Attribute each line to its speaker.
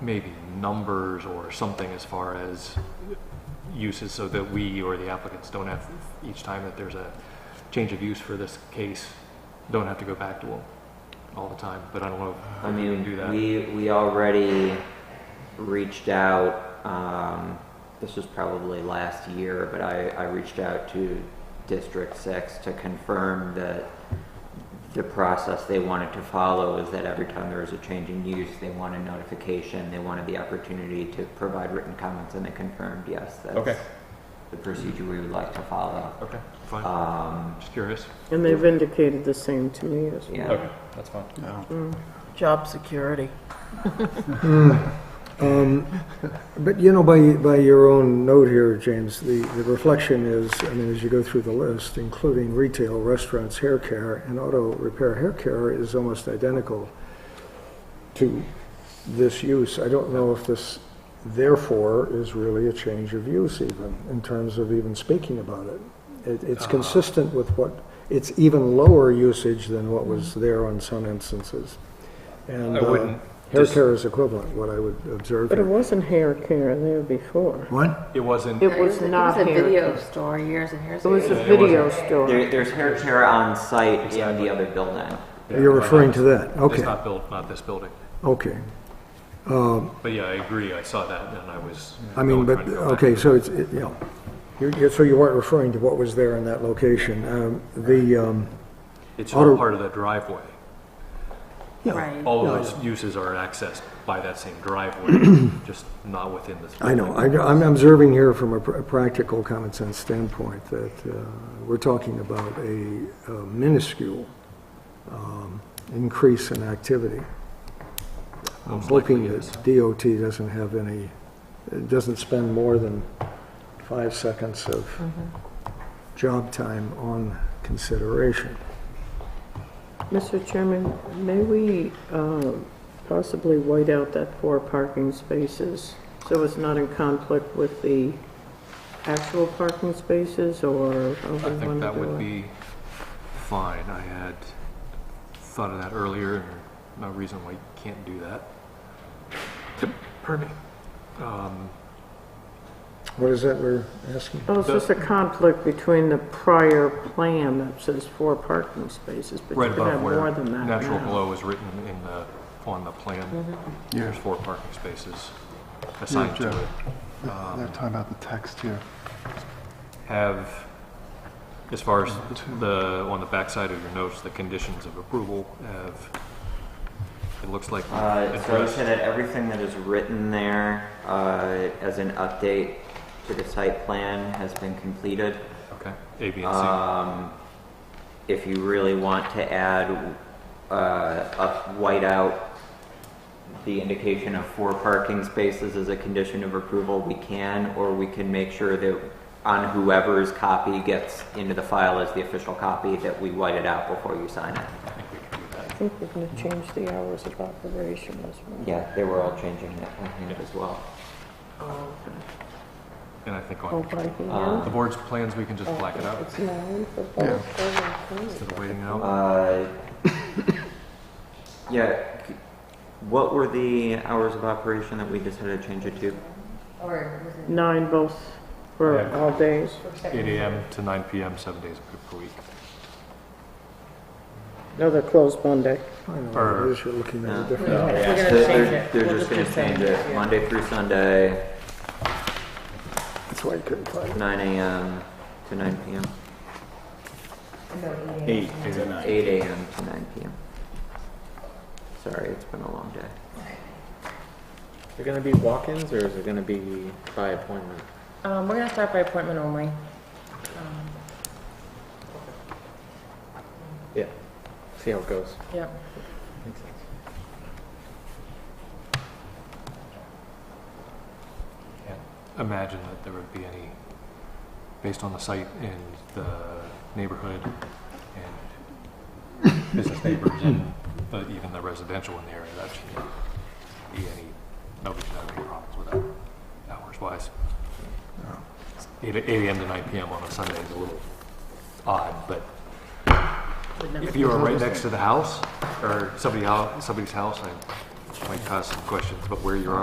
Speaker 1: maybe numbers or something as far as uses so that we or the applicants don't have, each time that there's a change of use for this case, don't have to go back to them all the time, but I don't know if
Speaker 2: I
Speaker 1: we can do
Speaker 2: mean,
Speaker 1: that.
Speaker 2: we, we already reached out, um, this was probably last year, but I, I reached out to District Six to confirm that the process they wanted to follow is that every time there is a change in use, they want a notification, they wanted the opportunity to provide written comments, and they confirmed, yes,
Speaker 3: Okay.
Speaker 2: that's the procedure we would like to follow.
Speaker 1: Okay, fine,
Speaker 2: Um,
Speaker 1: just curious.
Speaker 4: And they've indicated the same to me as well.
Speaker 2: yeah.
Speaker 3: Okay, that's fine.
Speaker 4: Job security.
Speaker 5: But, you know, by, by your own note here, James, the, the reflection is, I mean, as you go through the list, including retail, restaurants, hair care, and auto repair hair care is almost identical to this use. I don't know if this therefore is really a change of use even, in terms of even speaking about it. It,
Speaker 3: Uh-huh.
Speaker 5: it's consistent with what, it's even lower usage than what was there on some instances. And,
Speaker 3: I
Speaker 5: uh,
Speaker 3: wouldn't
Speaker 5: hair
Speaker 3: dis-
Speaker 5: care is equivalent, what I would observe.
Speaker 4: But it
Speaker 5: here.
Speaker 4: wasn't hair care there before.
Speaker 5: What?
Speaker 1: It wasn't,
Speaker 4: It was not
Speaker 6: It was a
Speaker 4: hair.
Speaker 6: video store years and years
Speaker 4: It
Speaker 6: ago.
Speaker 4: was a video
Speaker 2: There,
Speaker 4: store.
Speaker 2: there's hair care on site in the other building.
Speaker 5: You're referring to that,
Speaker 1: it's
Speaker 5: okay,
Speaker 1: not built, not this building.
Speaker 5: okay.
Speaker 1: But yeah, I agree, I saw that and I was.
Speaker 5: I mean,
Speaker 1: going-
Speaker 5: but,
Speaker 1: trying to go back.
Speaker 5: okay, so it's, it- yeah. You're- you're- So you weren't referring to what was there in that location. Um, The, um,
Speaker 1: It's
Speaker 5: auto-
Speaker 1: all part of the driveway.
Speaker 6: Right.
Speaker 1: All of those uses are accessed by that same driveway, just not within this.
Speaker 5: I know,
Speaker 1: building.
Speaker 5: I- I'm observing here from a pr- a practical common sense standpoint that uh, we're talking about a a minuscule um, increase in activity. I'm
Speaker 1: Most
Speaker 5: hoping
Speaker 1: likely,
Speaker 5: that
Speaker 1: yes.
Speaker 5: DOT doesn't have any, it doesn't spend more than five seconds of job time on consideration.
Speaker 4: Mr. Chairman, may we um, possibly white out that four parking spaces so it's not in conflict with the actual parking spaces or
Speaker 1: I
Speaker 4: however we
Speaker 1: think
Speaker 4: want to
Speaker 1: that
Speaker 4: do
Speaker 1: would
Speaker 4: it?
Speaker 1: be fine. I had thought of that earlier, and no reason why you can't do that. Pardon me. Um,
Speaker 5: What is that we're asking?
Speaker 4: Oh, it's just a conflict between the prior plan that says four parking spaces, but
Speaker 1: Right
Speaker 4: you could have
Speaker 1: above
Speaker 4: more
Speaker 1: where
Speaker 4: than that
Speaker 1: natural
Speaker 4: now.
Speaker 1: glow is written in the, on the plan,
Speaker 4: Mm-hmm.
Speaker 1: there's four parking spaces assigned to
Speaker 7: Joe.
Speaker 1: it.
Speaker 7: Yeah, They're talking about the text here.
Speaker 1: have, as far as the, on the backside of your notes, the conditions of approval have, it looks like
Speaker 2: Uh, so I would
Speaker 1: addressed.
Speaker 2: say that everything that is written there uh, as an update to the site plan has been completed.
Speaker 1: Okay, A, B, and C.
Speaker 2: Um, if you really want to add, uh, up, white out the indication of four parking spaces as a condition of approval, we can, or we can make sure that on whoever's copy gets into the file as the official copy, that we white it out before you sign it.
Speaker 1: I think we can do
Speaker 4: I
Speaker 1: that.
Speaker 4: think we're going to change the hours of operation as well.
Speaker 2: Yeah, they were all changing that on hand as well.
Speaker 1: And I think
Speaker 4: Oh,
Speaker 1: on
Speaker 4: by hand?
Speaker 2: Uh,
Speaker 1: the board's plans, we can just black it out
Speaker 4: It's nine for
Speaker 5: Oh,
Speaker 7: Yeah.
Speaker 4: both serving
Speaker 1: instead of waiting out.
Speaker 2: Uh, yeah. c- What were the hours of operation that we decided to change it to?
Speaker 6: Or was it-
Speaker 4: Nine both for
Speaker 1: Yeah.
Speaker 4: all days.
Speaker 1: Eight AM to nine PM, seven days per week.
Speaker 4: No, they're closed Monday.
Speaker 5: I don't know,
Speaker 1: Or-
Speaker 5: what it is you're looking at a different.
Speaker 2: They're-
Speaker 6: We're gonna
Speaker 2: they're-
Speaker 6: change it.
Speaker 2: They're
Speaker 6: We'll
Speaker 2: just
Speaker 6: just
Speaker 2: gonna
Speaker 6: keep
Speaker 2: change
Speaker 6: saying
Speaker 2: it,
Speaker 6: it.
Speaker 2: Monday through Sunday,
Speaker 5: That's why you couldn't find it.
Speaker 2: nine AM to nine PM,
Speaker 6: No, eight AM.
Speaker 3: Eight to nine.
Speaker 2: eight AM to nine PM. Sorry, it's been a long day.
Speaker 8: Is it gonna be walk-ins or is it gonna be by appointment?
Speaker 6: Um, we're gonna start by appointment only. Um,
Speaker 8: Yeah. See how it goes.
Speaker 6: Yep.
Speaker 8: Makes sense.
Speaker 1: Can't Imagine that there would be any, based on the site and the neighborhood and business neighbors and the- even the residential in the area, that shouldn't be any, nobody should have any problems with that, hours-wise. Eight eight AM to nine PM on a Sunday is a little odd, but if you were right next to the house or somebody, hou- somebody's house, I might cause some questions, but where you are